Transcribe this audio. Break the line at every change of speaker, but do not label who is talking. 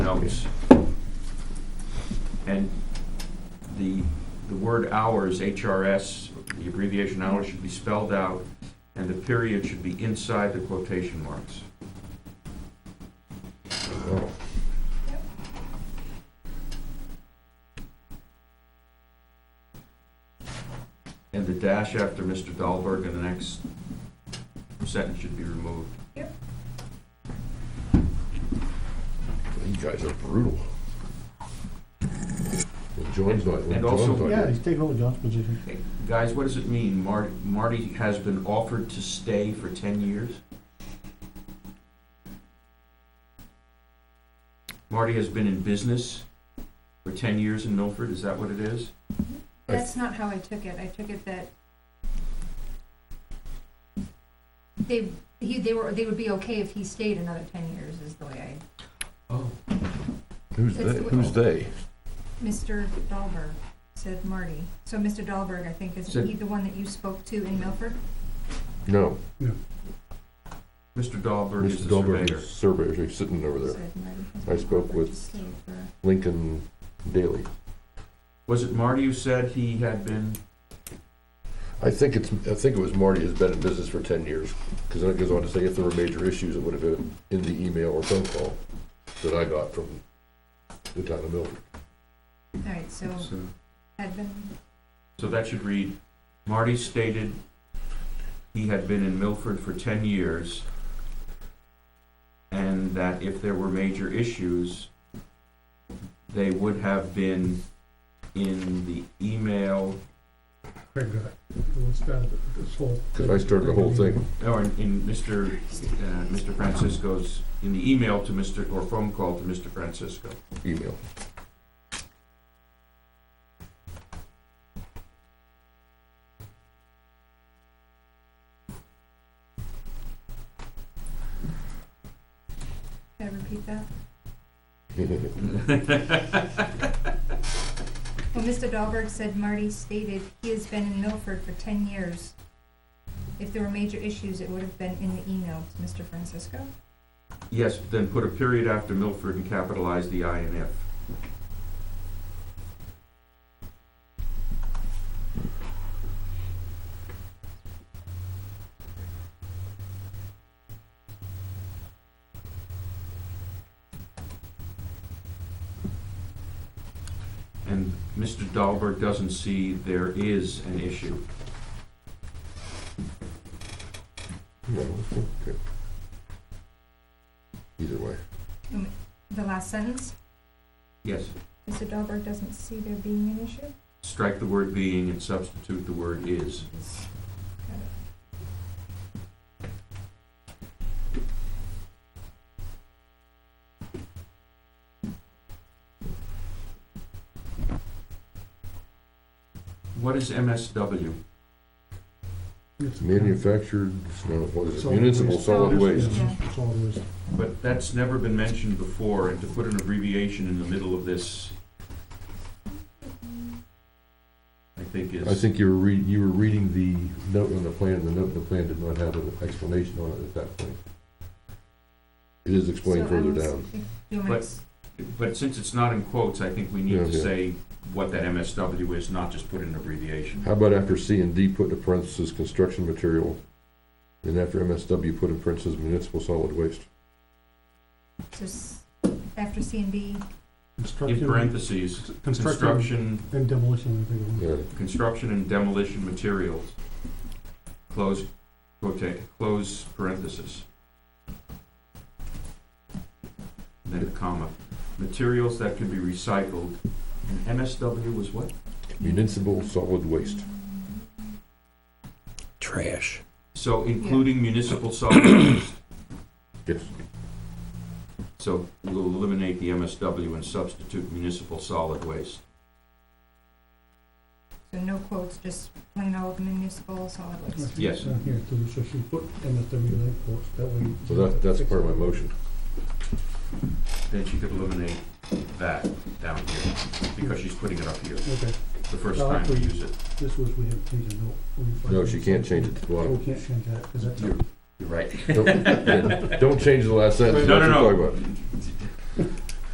notes. And the, the word hours, HRS, the abbreviation hours should be spelled out, and the period should be inside the quotation marks. And the dash after Mr. Dahlberg in the next sentence should be removed.
You guys are brutal. Well, John's not, well,
And also-
John's not
Yeah,
here.
he's taking over John's position.
Hey, Guys, what does it mean? Marty, Marty has been offered to stay for 10 years? Marty has been in business for 10 years in Milford, is that what it is?
That's not how I took it. I took it that they, he, they were, they would be okay if he stayed another ten years is the way I,
Oh.
Who's
That's
they,
the-
who's they?
Mr. Dahlberg said Marty. So Mr. Dahlberg, I think, is
Said-
he the one that you spoke to in Milford?
No,
Mr. Dahlberg is
Mr.
the
Dahlberg,
surveyor.
is surveyor, he's sitting over there,
Said Marty.
I spoke with-
Stayed for-
Lincoln Daly.
Was it Marty who said he had been,
I think it's, I think it was Marty has been in business for ten years, because then it goes on to say if there were major issues, it would have been in the email or phone call that I got from the town of Milford.
All right, so
so
had been,
so that should read, Marty stated he had been in Milford for 10 years, and that if there were major issues, they would have been in the email,
Craig got it. Let's start this whole.
Because I started the whole thing.
or in- in Mr., uh, Mr. Francisco's, in the email to Mr., or phone call to Mr. Francisco.
email.
can I repeat that? Well, Mr. Dahlberg said Marty stated he has been in Milford for ten years. If there were major issues, it would have been in the email to Mr. Francisco.
Yes, then put a period after Milford and capitalize the I and F. And Mr. Dahlberg doesn't see there is an issue.
No, okay. Either way,
The last sentence,
Yes,
Mr. Dahlberg doesn't see there being an issue.
strike the word being and substitute the word is.
Got it.
What is MSW?
manufactured, no, what is it,
Solid
municipal
waste.
solid
Solid
waste.
waste.
Yeah, solid waste.
But that's never been mentioned before, and to put an abbreviation in the middle of this, I think is.
I think you were read, you were reading the note on the plan, and the note on the plan did not have an explanation on it at that point. It is explained
So I
further
was-
down.
Do you want me to
But-
s-
But since it's not in quotes, I think we need to
Yeah, yeah.
say what that MSW is, not just put in an abbreviation.
How about after C and D, put in parentheses, construction material, and after MSW, put in parentheses, municipal solid waste?
so s- after C and D,
In
Construction
parentheses,
construction
construction,
and demolition, I think. it was.
Yeah,
construction and demolition materials. Close, okay, close parenthesis. Then a comma, materials that can be recycled, and MSW was what?
municipal solid waste.
Trash.
So including municipal solid waste,
Yes,
so we'll eliminate the MSW and substitute municipal solid waste.
so no quotes, just plain old municipal solid
I
waste.
think
Yes.
it's down Here too, so she put MSW light posts, that way.
so that, that's part of my motion.
Then she could eliminate that down here, because she's putting it up here,
Okay,
the first time we use it.
this was, we had changed a note. We find-
No, she can't change it to the
We
bottom.
can't change that, because that's.
You're-
You're right.
Don't don't change the last sentence.
No, no,
that's what I'm
no,
talking